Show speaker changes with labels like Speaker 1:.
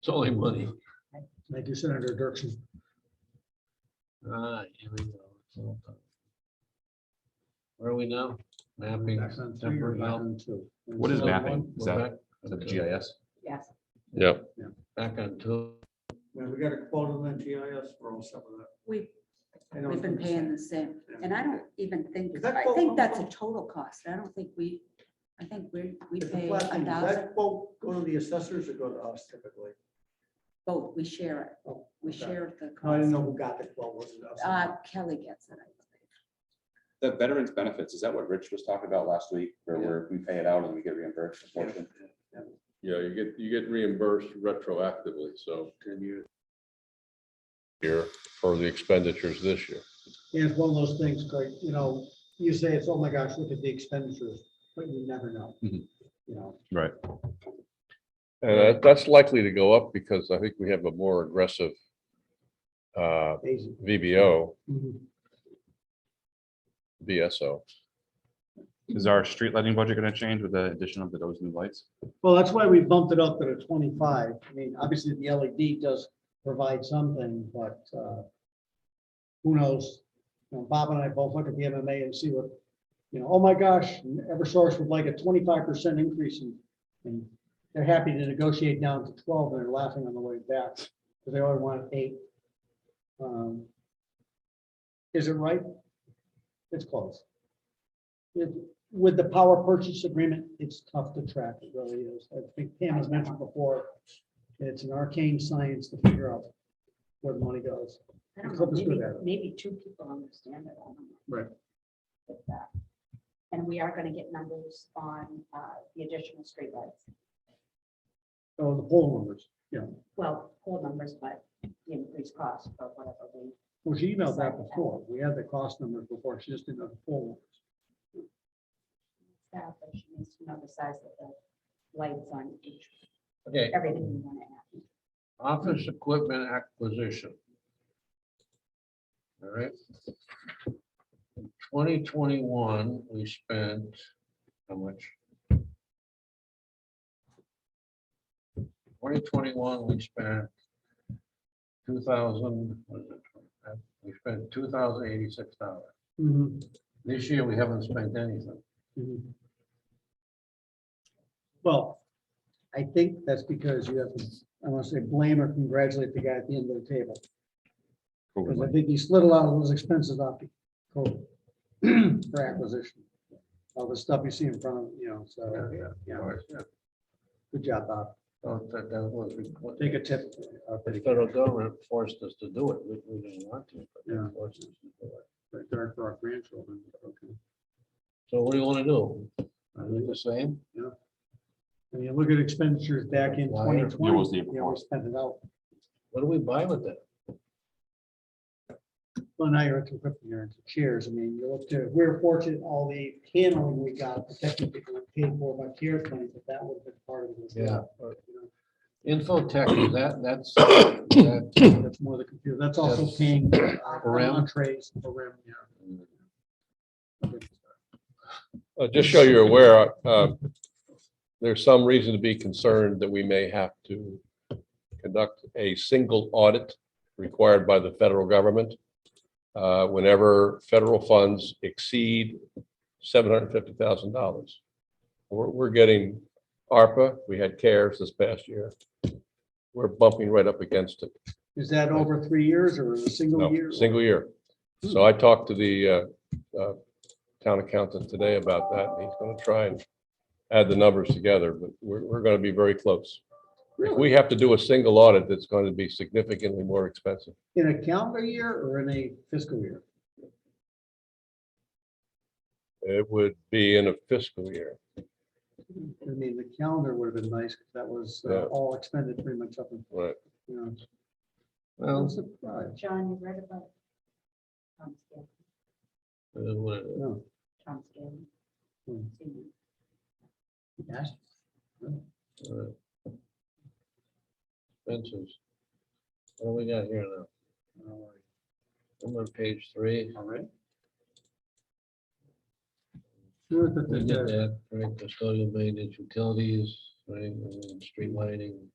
Speaker 1: It's only money.
Speaker 2: Thank you, Senator Dirksen.
Speaker 1: Alright, here we go. Where are we now? Mapping.
Speaker 2: Back on three or
Speaker 1: temporary
Speaker 2: back
Speaker 1: help.
Speaker 2: on two?
Speaker 3: What is
Speaker 1: Still on
Speaker 3: mapping?
Speaker 1: one?
Speaker 3: Is
Speaker 1: We're
Speaker 3: that-
Speaker 1: back-
Speaker 3: Is that the
Speaker 1: okay,
Speaker 3: GIS?
Speaker 4: Yes.
Speaker 5: Yep.
Speaker 1: Back on two.
Speaker 2: Yeah, we got a quote on the GIS for all some of
Speaker 4: We've,
Speaker 2: that. I don't
Speaker 4: we've been
Speaker 2: think-
Speaker 4: paying the same, and I don't even think,
Speaker 2: Is that
Speaker 4: I
Speaker 2: full-
Speaker 4: think that's a total cost. I don't think we, I think we, we
Speaker 2: It's a
Speaker 4: pay a
Speaker 2: blessing. Does
Speaker 4: thousand,
Speaker 2: That quote go to the assessors or go to us typically?
Speaker 4: both, we share it.
Speaker 2: Oh,
Speaker 4: We
Speaker 2: okay.
Speaker 4: share the
Speaker 2: No, I didn't
Speaker 4: cost.
Speaker 2: know who got the quote, was it us?
Speaker 4: Uh, Kelly gets it, I believe.
Speaker 3: The veterans benefits, is that what Rich was talking about last week, where
Speaker 2: Yeah.
Speaker 3: we're- we pay it out and we get reimbursed a portion?
Speaker 5: Yeah, you get, you get reimbursed retroactively, so. Ten years. Here for the expenditures this year.
Speaker 2: Yeah, it's one of those things, Craig, you know, you say it's, oh my gosh, look at the expenditures, but you never know. You
Speaker 3: Mhm.
Speaker 2: know,
Speaker 5: And that- that's likely to go up because I think we have a more aggressive uh,
Speaker 2: days-
Speaker 5: VBO,
Speaker 2: Mhm.
Speaker 5: VSO.
Speaker 3: Is our street lighting budget gonna change with the addition of those new lights?
Speaker 2: Well, that's why we bumped it up to the twenty-five. I mean, obviously the LED does provide something, but, uh, who knows? You know, Bob and I both look at the MMA and see what, you know, oh my gosh, Eversource would like a twenty-five percent increase in, and they're happy to negotiate down to twelve, and they're laughing on the way back, because they only want eight. Um, Is it right? It's close. It, with the power purchase agreement, it's tough to track, it really is. I think Pam has mentioned before, it's an arcane science to figure out where the money goes.
Speaker 4: I don't know,
Speaker 2: Help us do
Speaker 4: maybe,
Speaker 2: that.
Speaker 4: maybe two people understand it. I don't know.
Speaker 2: Right.
Speaker 4: But, uh, And we are gonna get numbers on uh, the additional streetlights,
Speaker 2: So the poll numbers, yeah.
Speaker 4: well, whole numbers, but the increased cost or whatever we.
Speaker 2: Well, she emailed that before. We had the cost numbers before. She just didn't have the poll
Speaker 4: staff, but she needs to know the size of the lights on each,
Speaker 1: Okay,
Speaker 4: everything we want to add.
Speaker 1: office equipment acquisition. All right. Twenty twenty-one, we spent how much? Twenty twenty-one, we spent two thousand, we spent two thousand eighty-six dollars.
Speaker 2: numbers.
Speaker 1: This year, we haven't spent anything.
Speaker 2: Mhm. Well, I think that's because you have to, I want to say blame or congratulate the guy at the end of the table. Because I think he slid a lot of those expenses off the code for acquisition. All the stuff you see in front of, you know, so, Oh, yeah, good job, Bob.
Speaker 1: So that- that was what-
Speaker 2: Take a tip. uh,
Speaker 1: The federal government forced us to do it. We, we didn't want to, but
Speaker 2: Yeah.
Speaker 1: they forced us to do it.
Speaker 2: Right there for our grandchildren. Okay.
Speaker 1: So what do you want to do?
Speaker 2: I
Speaker 1: Do the same?
Speaker 2: mean, you look at expenditures back in
Speaker 1: Why?
Speaker 2: twenty
Speaker 3: Yeah, it was
Speaker 2: twenty,
Speaker 3: the year
Speaker 2: yeah,
Speaker 3: before.
Speaker 2: we spent it out.
Speaker 1: What do we buy with that?
Speaker 2: Well, now you're into equipment, you're into chairs. I mean, you look to, we were fortunate, all the paneling we got, the technical paid for by CARES money, but that would have been part of it. as well. But, you know,
Speaker 1: Infotech, is that, that's, that-
Speaker 2: That's more the computer. That's also
Speaker 1: That's-
Speaker 2: paying
Speaker 1: For
Speaker 2: for
Speaker 1: rim?
Speaker 2: entrees, for rim, yeah.
Speaker 5: Uh, Just so you're aware, uh, there's some reason to be concerned that we may have to conduct a single audit required by the federal government uh, whenever federal funds exceed $750,000. We're, we're getting ARPA, we had CARES this past year. We're bumping right up against it.
Speaker 2: Is that over three years or a single year?
Speaker 5: No, single year. So I talked to the uh, uh, town accountant today about that. and He's going to try and add the numbers together, but we're, we're going to be very close. If we have to do a single audit, that's going to be significantly more expensive.
Speaker 2: In a calendar year or in a fiscal year?
Speaker 5: It would be in a fiscal year.
Speaker 2: I mean, the calendar would have been nice, 'cause that was uh,
Speaker 5: Yeah.
Speaker 2: all expended pretty much up in,
Speaker 5: Right.
Speaker 2: you know. I'm
Speaker 1: well,
Speaker 2: surprised.
Speaker 4: John, you read about Tom Scanlon,
Speaker 1: uh, what-
Speaker 2: No.
Speaker 4: Tom Scanlon,
Speaker 2: Hmm.
Speaker 4: senior.
Speaker 2: Yes.
Speaker 1: uh, expenses. What do we got here now?
Speaker 2: All right.
Speaker 1: I'm on page three.
Speaker 2: All right. Sure that
Speaker 1: We
Speaker 2: they
Speaker 1: did
Speaker 2: did.
Speaker 1: that, right, custodial maintenance, utilities, right, and then street lighting.